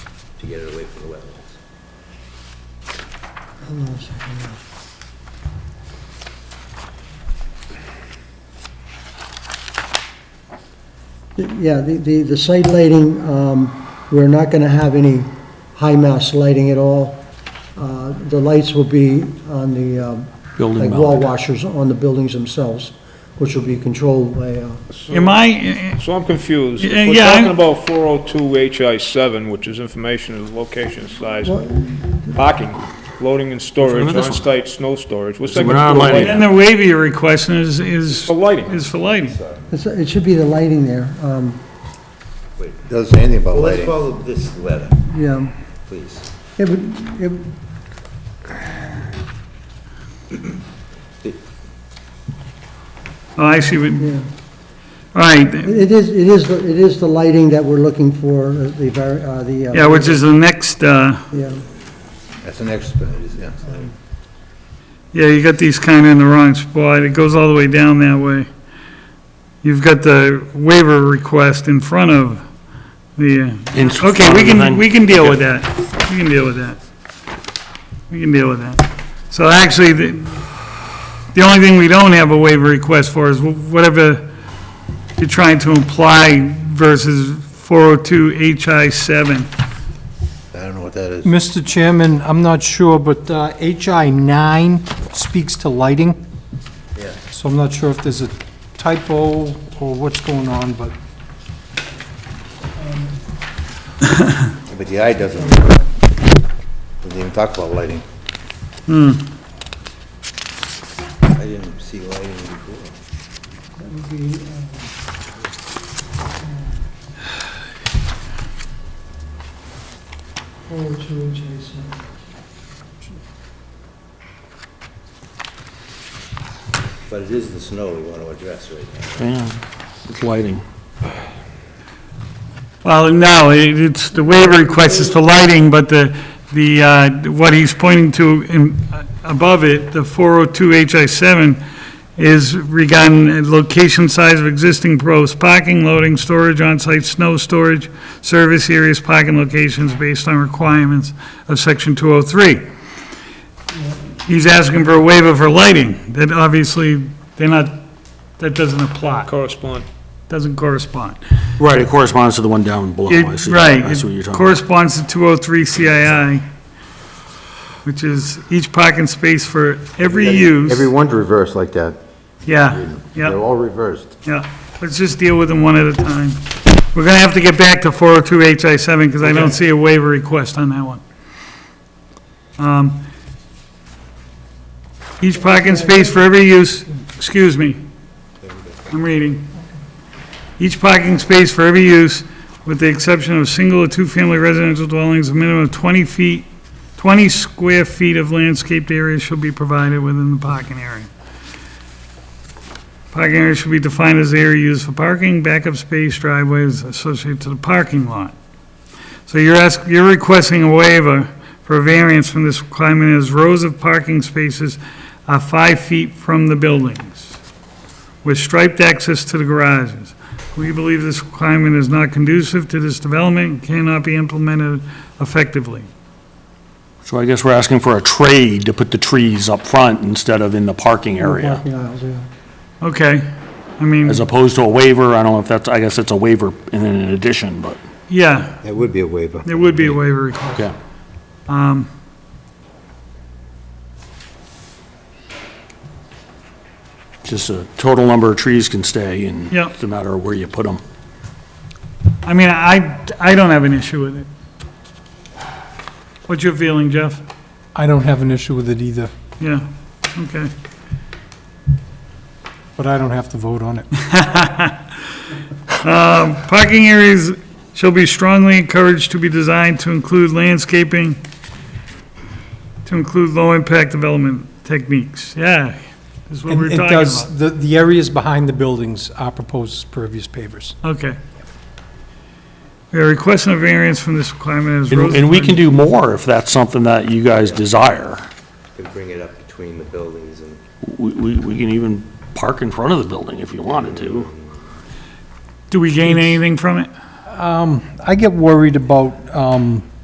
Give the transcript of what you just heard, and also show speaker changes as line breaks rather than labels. get it away from the wetlands.
Hold on a second now. Yeah, the, the, the site lighting, um, we're not gonna have any high mass lighting at all. Uh, the lights will be on the, um,
Building
like wall
mounted.
washers on the buildings themselves, which will be controlled by, uh,
Am I,
So I'm confused.
Yeah,
If We're
yeah, I'm-
talking about 402 HI 7, which is information of location, size,
What?
parking, loading and
Which one
storage,
is this one?
on-site snow storage. What's
So
that
we're
got to do
not
with
lighting
and the waiver you're requesting is, is,
For lighting.
is for lighting.
it's- it should be the lighting there, um,
Doesn't say anything about
Well, let's
lighting.
follow this letter,
yeah.
please.
It would, it,
Oh, I see, what- all
yeah.
right,
It is, it is, the- it is the lighting that we're looking for, uh, the, var- uh, the. uh,
yeah, which is the next, uh,
Yeah,
That's an expert, yeah.
yeah, you got these kind of in the wrong spot, it goes all the way down that way. You've got the waiver request in front of the,
In
okay,
front
we
of
can,
the-
we can deal with that, we can deal with that. We can deal with that. So actually, the, the only thing we don't have a waiver request for is wh- whatever you're trying to imply versus 402 HI 7.
I don't know what that is.
Mr. Chairman, I'm not sure, but uh, HI 9 speaks to lighting.
Yeah.
So I'm not sure if there's a typo or what's going on, but
But the eye doesn't, doesn't even talk about lighting.
Hmm.
I didn't see lighting before. But it is the snow we want to address right now.
Yeah, it's lighting.
Well, no, it- it's, the waiver request is for lighting, but the, the, uh, what he's pointing to in, uh, above it, the 402 HI 7, is regarding location size of existing gross parking, loading, storage, on-site snow storage, service areas, parking locations based on requirements of section 203. He's asking for a waiver for lighting, that obviously, they're not, that doesn't apply,
Correspond.
doesn't correspond.
Right, it corresponds to the one down below.
It-
I see.
Right.
I see what you're
It
talking about.
corresponds to 203 CII, which is each parking space for every use.
Everyone's reversed like that.
Yeah,
They're
yeah,
all reversed.
yeah. Let's just deal with them one at a time. We're going to have to get back to 402 HI7 because I don't see a waiver request on that one. Um, Each parking space for every use, excuse me. I'm reading. Each parking space for every use, with the exception of single or two-family residential dwellings, a minimum of 20 feet, 20 square feet of landscaped area shall be provided within the parking area. Parking area should be defined as the area used for parking, backup space, driveways associated to the parking lot. So you're ask, you're requesting a waiver for a variance from this requirement as rows of parking spaces are five feet from the buildings with striped access to the garages. We believe this requirement is not conducive to this development and cannot be implemented effectively.
So I guess we're asking for a trade to put the trees up front instead of in the parking area,
parking aisles, yeah.
Okay, I mean,
as opposed to a waiver. I don't know if that's, I guess it's a waiver and then an addition, but,
yeah,
That would be a waiver.
there would be a waiver request.
okay. Just a total number of trees can stay and
Yeah.
it's a matter of where you put them.
I mean, I, I don't have an issue with it. What's your feeling, Jeff?
I don't have an issue with it either,
Yeah, okay.
but I don't have to vote on it.
Parking areas shall be strongly encouraged to be designed to include landscaping, to include low-impact development techniques. Yeah, is what
And
we're
It
talking
does,
about.
the, the areas behind the buildings are proposed as pervious pavers.
Okay. We are requesting a variance from this requirement as.
And and we
Rosenberg-
can do more if that's something that you guys desire.
Could bring it up between the buildings and
We, we, we can even park in front of the building if you wanted to.
Do we gain anything from it?
I get worried about, um,